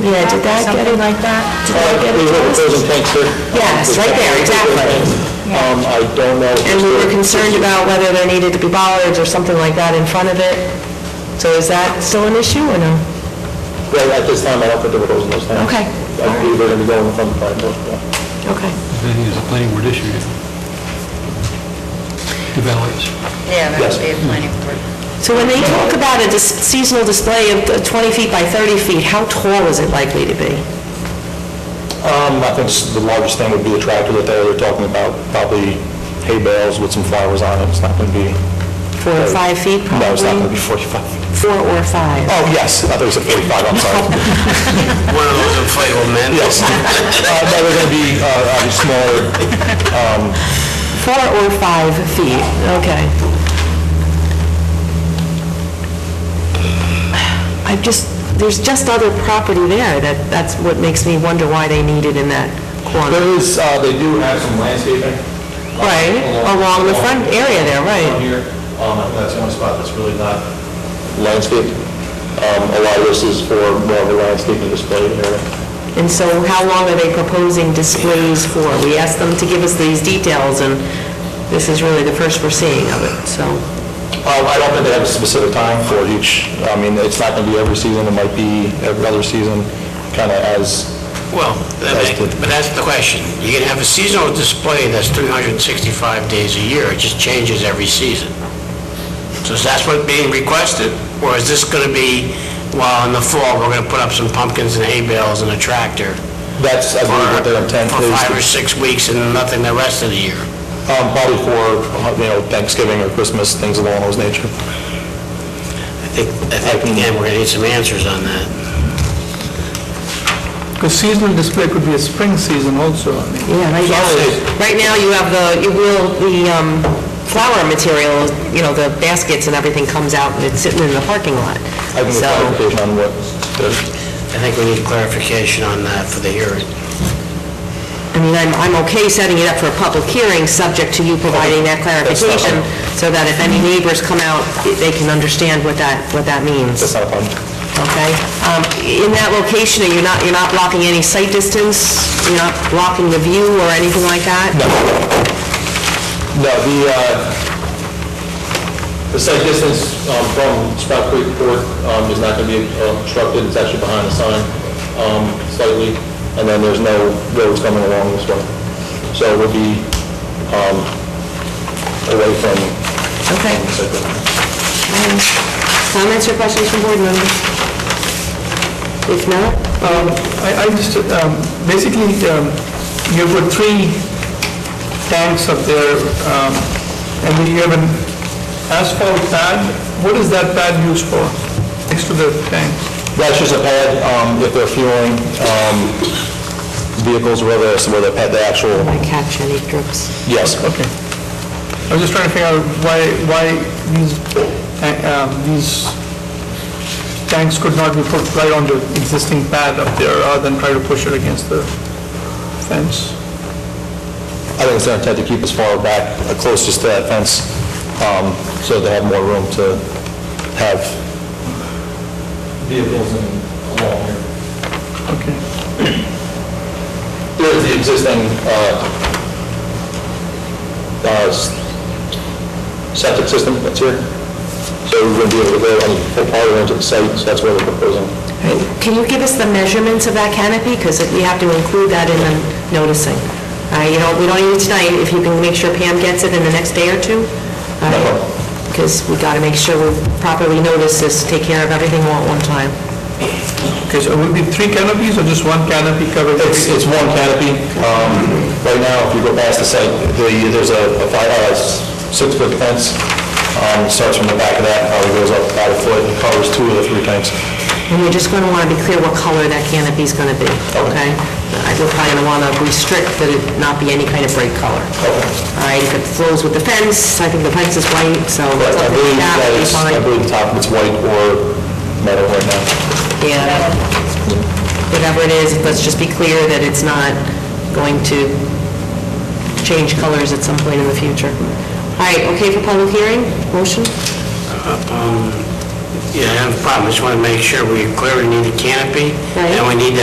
Yeah, did that get it? Something like that? Did that get Uh, We were addressed? proposing tanks for... Yes, right there, exactly. Um, I don't know. if And we were it's- concerned about whether there needed to be bollards or something like that in front of it. So is that still an issue or no? Well, at this time, I don't think they're proposing those tanks. Okay. I believe they're going to be going from the planning board. yeah. Okay. I think it's a planning board issue. The ballards. Yeah, that Yes. would be a planning board. So when they talk about a dis- seasonal display of 20 feet by 30 feet, how tall is it likely to be? Um, I think s- the largest thing would be the tractor that they were talking about, probably hay bales with some flowers on it. It's not going to be... Four or five feet probably? Uh, No, it's not going to be 45. Four or five? Oh, yes, I thought you said 45, I'm sorry. One of those inflatable men? Yes. Uh, No, they're going to be, uh, obviously smaller. Four or five feet, okay. I just, there's just other property there that, that's what makes me wonder why they need it in that corner. There is, uh, they do have some landscaping. uh, Right, along the front area there, right. Along here, um, I think that's one spot that's really not landscaped. Um, A lot of this is for more of a landscaping display area. And so how long are they proposing displays for? We asked them to give us these details, and this is really the first we're seeing of it, so. Um, I don't think they have a specific time for each, I mean, it's not going to be every season, it might be every other season, kind of as, Well, that That's may- good. but that's the question. You can have a seasonal display that's 365 days a year, it just changes every season. So is that what being requested? Or is this going to be, well, in the fall, we're going to put up some pumpkins and hay bales and a tractor? that's, I believe, what their intent For is. five or six weeks and nothing the rest of the year? Um, Probably for, you know, Thanksgiving or Christmas, things along those nature. I think, I think, again, we're going to need some answers on that. Because seasonal display could be a spring season also, I mean. Yeah, right now, right now you have the, you will, the um, flower material, you know, the baskets and everything comes out, and it's sitting in the parking lot. I can get So- clarification on what, the- I think we need clarification on that for the hearing. I mean, I'm, I'm okay setting it up for a public hearing, subject to you providing that That's not- clarification, so that if any neighbors come out, they can understand what that, what that means. that's not a problem. Okay. Um, In that location, are you not, you're not blocking any sight distance? You're not blocking the view or anything like that? No. No, the, uh, the site distance um, from Sprout Creek Court um, is not going to be uh, obstructed, it's actually behind the sign um, slightly, and then there's no roads coming along this way. So it would be um, away from... Okay. from the site distance. Um, Comments or questions from board members? If not, Um, I, I just, um, basically, um, you put three tanks up there, um, and then you have an asphalt pad. What is that pad used for, next to the tanks? That's just a pad, um, if they're fueling um, vehicles, where they're, where they pad the actual, I catch any drips. yes. Okay. I was just trying to figure out why, why these, ta- um, these tanks could not be put right on the existing pad up there, rather than try to push it against the fence. I think it's their intent to keep as far back, uh, closest to that fence, um, so they have more room to have... Vehicles and along here. Okay. There's the existing uh, uh, s- septic system that's here, so we're going to be able to go any full power into the site, so that's where we're proposing. Can you give us the measurements of that canopy? Because we have to include that in the noticing. Uh, You know, we don't need it tonight, if you can make sure Pam gets it in the next day or two. Because we got to make sure we properly notice this, take care of everything all at one time. Okay, so it will be three canopies or just one canopy covering? It's, it's one canopy. Um, Right now, if you go past the site, the- there's a a five, uh, s- six-foot fence, um, starts from the back of that, probably goes up about a foot, and covers two of the three tanks. And you're just going to want to be clear what color that canopy's going to be, okay? I- We're probably going to want to restrict that it not be any kind of bright color. All right, if it flows with the fence, I think the fence is white, so But I something believe like that that would be is, I fine. believe the top of it's white or metal right now. Yeah, that- whatever it is, let's just be clear that it's not going to change colors at some point in the Um, future. All right, okay for public hearing? Motion? Yeah, I have a problem, I just want to make sure we're clear, we need a canopy, and we need that